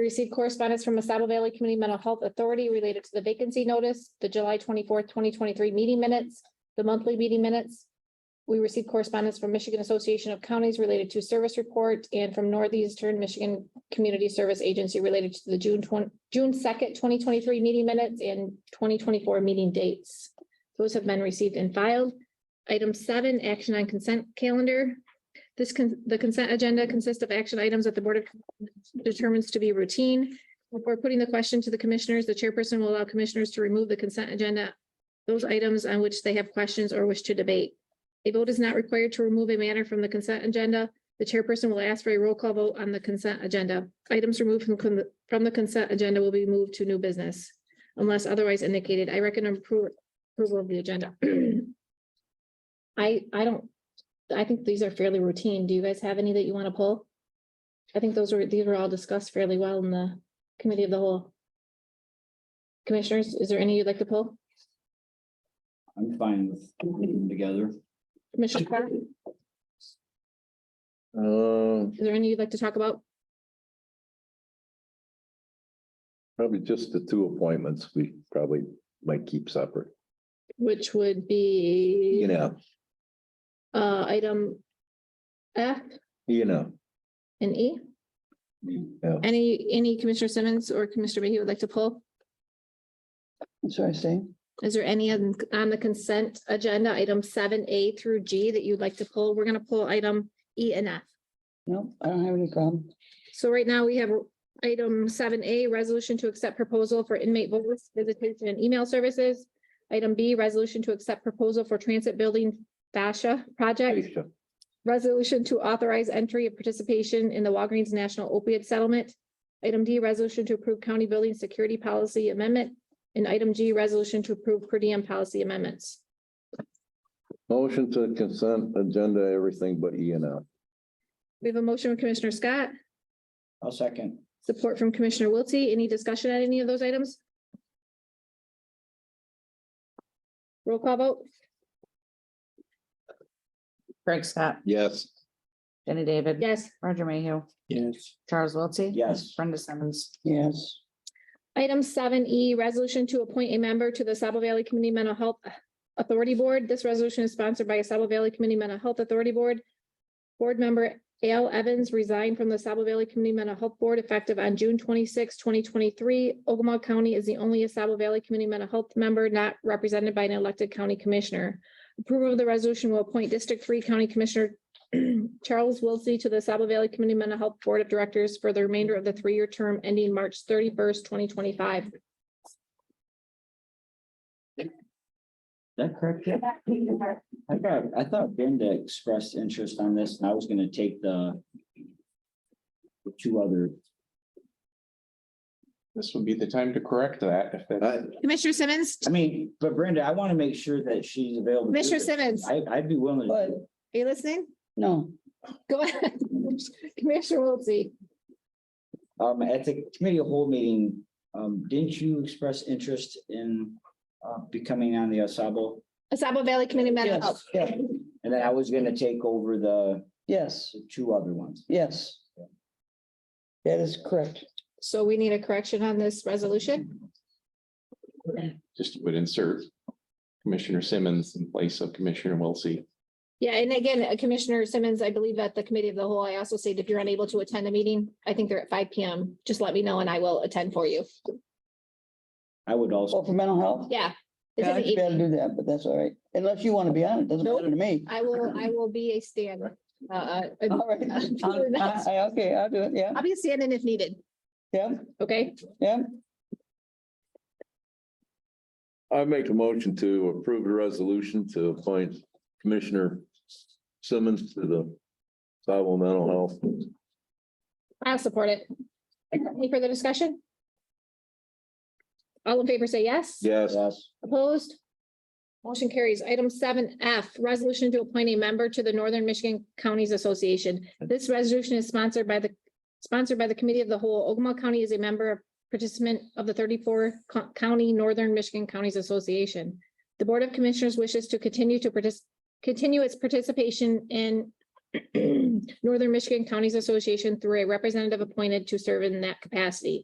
Received correspondence from the Saddle Valley Community Mental Health Authority related to the vacancy notice, the July twenty-fourth, twenty twenty-three meeting minutes, the monthly meeting minutes. We received correspondence from Michigan Association of Counties related to service report and from Northeastern Michigan Community Service Agency related to the June twenty, June second, twenty twenty-three meeting minutes and twenty twenty-four meeting dates. Those have been received and filed. Item seven, action on consent calendar. This can, the consent agenda consists of action items that the Board of determines to be routine. Before putting the question to the commissioners, the chairperson will allow commissioners to remove the consent agenda, those items on which they have questions or wish to debate. A vote is not required to remove a matter from the consent agenda. The chairperson will ask for a roll call vote on the consent agenda. Items removed from, con- from the consent agenda will be moved to new business unless otherwise indicated. I recommend appro- approval of the agenda. I, I don't, I think these are fairly routine. Do you guys have any that you want to pull? I think those were, these were all discussed fairly well in the committee of the whole. Commissioners, is there any you'd like to pull? I'm fine with putting them together. Commissioner, Carr, Uh, is there any you'd like to talk about? probably just the two appointments we probably might keep separate, Which would you be, know, uh, item F you know. and E. yeah. Any, any Commissioner Simmons or Commissioner Mayhew would like to pull? I'm sorry, saying, Is there any on on the consent agenda, item seven A through G that you'd like to pull? We're gonna pull item E and F. no, I don't have any problem. So right now we have item seven A, resolution to accept proposal for inmate voice visitation and email services. Item B, resolution to accept proposal for transit building fascia project. Aisha, Resolution to authorize entry of participation in the Walgreens National Opiate Settlement. Item D, resolution to approve county building security policy amendment. And item G, resolution to approve per diem policy amendments. Motion to consent agenda, everything but E and F. We have a motion from Commissioner Scott, I'll second. support from Commissioner Wiltie. Any discussion on any of those items? Roll call vote. Greg Scott, Yes. Jenny David. Yes. Roger Mayhew, Yes. Charles Wiltie. Yes. Brenda Simmons. Yes, Item seven E, resolution to appoint a member to the Saddle Valley Community Mental Health Authority Board. This resolution is sponsored by Saddle Valley Community Mental Health Authority Board. Board member Al Evans resigned from the Saddle Valley Community Mental Health Board effective on June 26, twenty twenty-three. Ogama County is the only Saddle Valley Community Mental Health member not represented by an elected county commissioner. Approval of the resolution will appoint District Three County Commissioner Charles Wilsey to the Saddle Valley Community Mental Health Board of Directors for the remainder of the three-year term ending March thirty-first, twenty twenty-five. Is that correct? Deb? I thought, I thought Brenda expressed interest on this and I was gonna take the the two other, This would be the time to correct that if that's. I, Commissioner Simmons, I mean, but Brenda, I want to make sure that she's available. to do Commissioner this. Simmons, are I, I'd be willing to. but do it. you listening? no, Go ahead. Commissioner Wiltie. Um, at the committee of whole meeting, um, didn't you express interest in uh, becoming on the Asabo? Asaba Valley Community Mental Health. yes, yeah, And then I was gonna take over the yes, two other ones. yes. That is correct. So we need a correction on this resolution. Just would insert Commissioner Simmons in place of Commissioner Wiltie. Yeah, and again, uh, Commissioner Simmons, I believe at the committee of the whole, I also said if you're unable to attend the meeting, I think they're at five P M. Just let me know and I will attend for you. I would also, Well, for mental health, Yeah. It yeah, says I'd be able to 8. do that, but that's all right, unless you want to be on it, doesn't Nope. matter to me. I will, I will be a stand. uh, uh, All right, I'll- I- I- okay, I'll do it, yeah, I'll be a stand-in if needed, yeah, okay? yeah, I make a motion to approve the resolution to appoint Commissioner Simmons to the Saddle Mental Health. I'll support it. Any further discussion? All in favor, say yes. Yes. yes, Opposed? Motion carries. Item seven F, resolution to appoint a member to the Northern Michigan Counties Association. This resolution is sponsored by the, sponsored by the Committee of the Whole. Ogama County is a member of participant of the thirty-four co- county Northern Michigan Counties Association. The Board of Commissioners wishes to continue to participate, continue its participation in Northern Michigan Counties Association through a representative appointed to serve in that capacity.